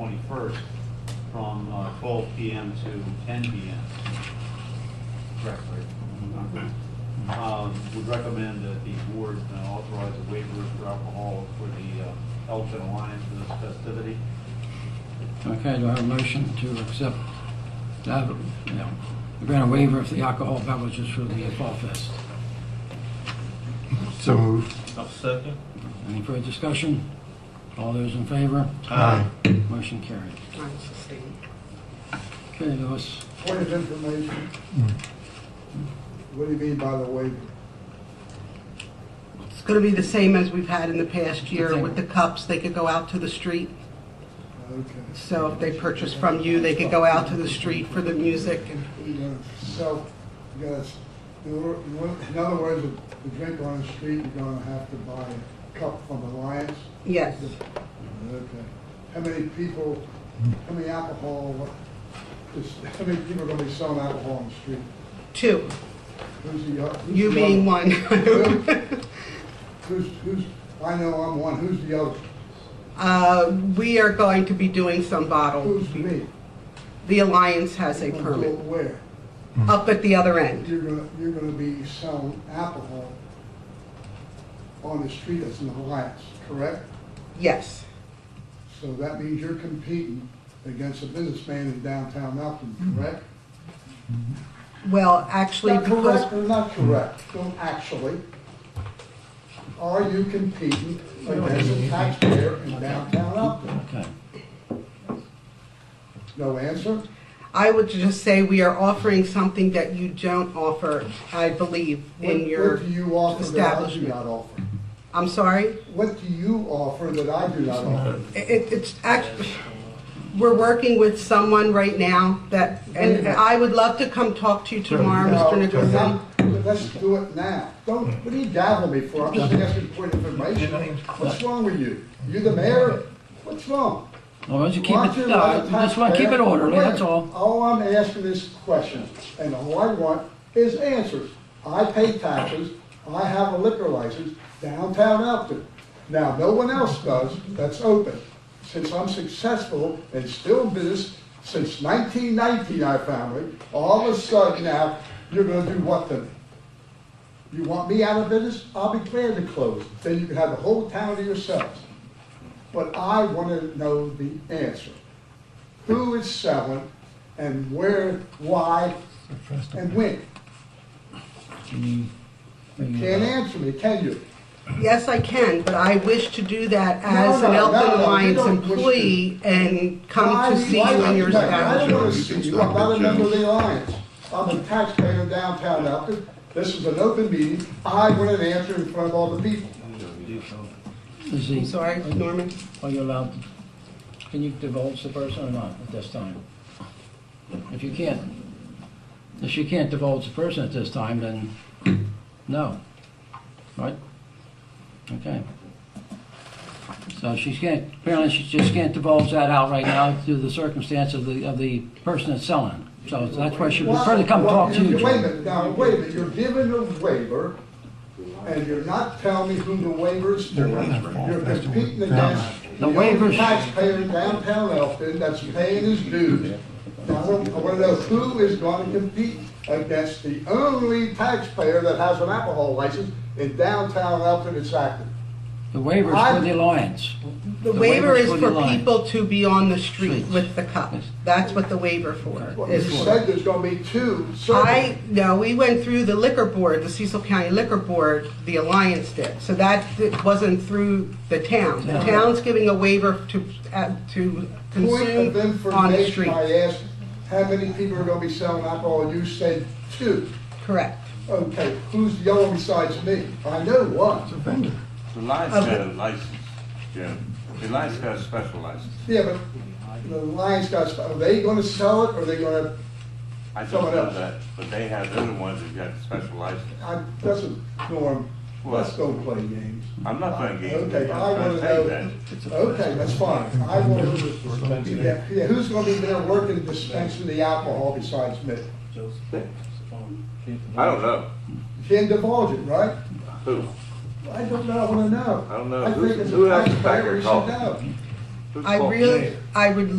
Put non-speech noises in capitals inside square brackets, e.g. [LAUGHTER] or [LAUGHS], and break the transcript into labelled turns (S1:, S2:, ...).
S1: 21st from uh, 12 PM to 10 PM. Correct, right? Um, Would recommend that the board uh, authorize a waiver for alcohol for the uh, Elgin Alliance for this festivity.
S2: Okay, do I have a motion to accept that, you know, grant a waiver for the alcohol beverages for the Fall Fest?
S3: So moved.
S4: I'll second.
S2: Any further discussion? All those in favor?
S3: Aye.
S2: Motion carried.
S5: I'm sustained.
S2: Okay, Louis,
S6: Point of information. What do you mean by the waiver?
S5: It's going to be the same as we've had in the past year
S2: Okay.
S5: with the cups. They could go out to the street.
S6: Okay.
S5: So if they purchase from you, they could go out to the street for the music.
S6: You gotta self, you gotta, s- in or- in or- in other words, if you drink on the street, you're gonna have to buy a cup from Alliance?
S5: Yes.
S6: Okay. How many people, how many alcohol, is, how many people are gonna be selling alcohol on the street?
S5: Two.
S6: Who's the, oth- who's
S5: You
S6: the
S5: being
S6: other-
S5: one. [LAUGHS]
S6: Who's, who's, I know I'm one, who's the other?
S5: Uh, We are going to be doing some bottle.
S6: Who's me?
S5: The Alliance has a permit
S6: Until Where? Mm-hmm.
S5: up at the other end.
S6: You're gonna, you're gonna be selling alcohol on the street as an alliance, correct?
S5: Yes.
S6: So that means you're competing against a businessman in downtown Elton,
S5: Mm-hmm.
S6: correct?
S5: Well, actually,
S6: Not correct
S5: because
S6: or not correct, don't actually. Are you competing against a taxpayer in downtown Elton?
S2: okay.
S6: No answer?
S5: I would just say we are offering something that you don't offer, I believe,
S6: What-
S5: in your
S6: What do you offer that I do
S5: establishment.
S6: not offer?
S5: I'm sorry?
S6: What do you offer that I do not offer?
S5: It, it's actually, we're working with someone right now that, and I would love to come talk to you tomorrow, Um,
S6: No,
S5: Mr. Nicholson.
S6: not- Let's do it now. Don't, what are you dabbling me for? I'm just asking for information. What's wrong with you? You the mayor? What's wrong?
S2: Well, why don't you keep
S6: Why don't
S2: it,
S6: you
S2: no,
S6: let the
S2: just want to keep it
S6: taxpayer-
S2: orderly,
S6: Wait a
S2: that's
S6: minute.
S2: all.
S6: All I'm asking is questions, and all I want is answers. I pay taxes, I have a liquor license downtown Elton. Now, no one else does, that's open. Since I'm successful and still in business, since nineteen nineteen, I found it, all of a sudden now, you're gonna do what to me? You want me out of business? I'll be glad to close. Then you can have the whole town to yourselves. But I want to know the answer. Who is selling and where, why, and when? You Can't answer me, can you?
S5: Yes, I can, but I wish to do that as
S6: No,
S5: an
S6: no, no,
S5: Elton
S6: no, you
S5: Alliance
S6: don't wish to.
S5: employee and come
S6: Why-
S5: to see
S6: why
S5: you in
S6: not?
S5: your
S6: No, I don't
S5: establishment.
S6: want to see you, I'm not a member of the Alliance. I'm a taxpayer in downtown Elton. This is an open meeting. I want an answer in front of all the people.
S2: Is
S5: I'm
S2: he,
S5: sorry, Norman?
S2: are you allowed, can you divulge the person or not at this time? If you can't, if you can't divulge the person at this time, then no, right? Okay. So she can't, apparently she just can't divulge that out right now due to the circumstance of the, of the person that's selling. So that's why she would prefer to come
S6: Well,
S2: talk to you.
S6: you- Wait a minute, now, wait a minute, you're giving a waiver, and you're not telling me who the waiver's for. You're competing against
S2: The
S6: the only
S2: waiver's-
S6: taxpayer in downtown Elton that's paying his dues. Now, I want to know who is going to compete against the only taxpayer that has an alcohol license in downtown Elton that's active.
S2: The waivers for the alliance.
S5: The waiver
S2: waiver's
S5: is
S2: the
S5: for
S2: line.
S5: people to be on the street
S2: Streets.
S5: with the cups. That's what the waiver for
S6: Well, you
S5: is for.
S6: said there's going to be two certain.
S5: I, no, we went through the liquor board, the Cecil County Liquor Board, the Alliance did. So that wasn't through the town. The town's giving a waiver to, uh, to
S6: Point of
S5: consume on the
S6: information,
S5: street.
S6: I asked, how many people are going to be selling alcohol? You said two.
S5: Correct.
S6: Okay, who's the other besides me? I know one.
S7: The Lions
S5: Okay.
S7: got a license, Jim. The Lions got a special license.
S6: Yeah, but the Lions got, are they gonna sell it, or are they gonna,
S7: I don't
S6: Someone
S7: know
S6: else.
S7: that, but they have, they're the ones that got the special license.
S6: I, doesn't, Norm, let's don't play games.
S7: I'm not playing games. with
S6: Okay,
S7: you.
S6: I
S7: I'm
S6: wanna
S7: trying to tell you
S6: know, okay, that's fine. I wanna, yeah, yeah, who's gonna be there working dispensing the alcohol besides me?
S7: that. I don't know.
S6: Can't divulge it, right?
S7: Who?
S6: I don't know, I wanna know.
S7: I don't know.
S6: I
S7: Uh, Who's-
S6: think as
S7: who
S6: a
S7: else is back
S6: taxpayer,
S7: there
S6: we should
S7: talking?
S6: know.
S5: I really, I would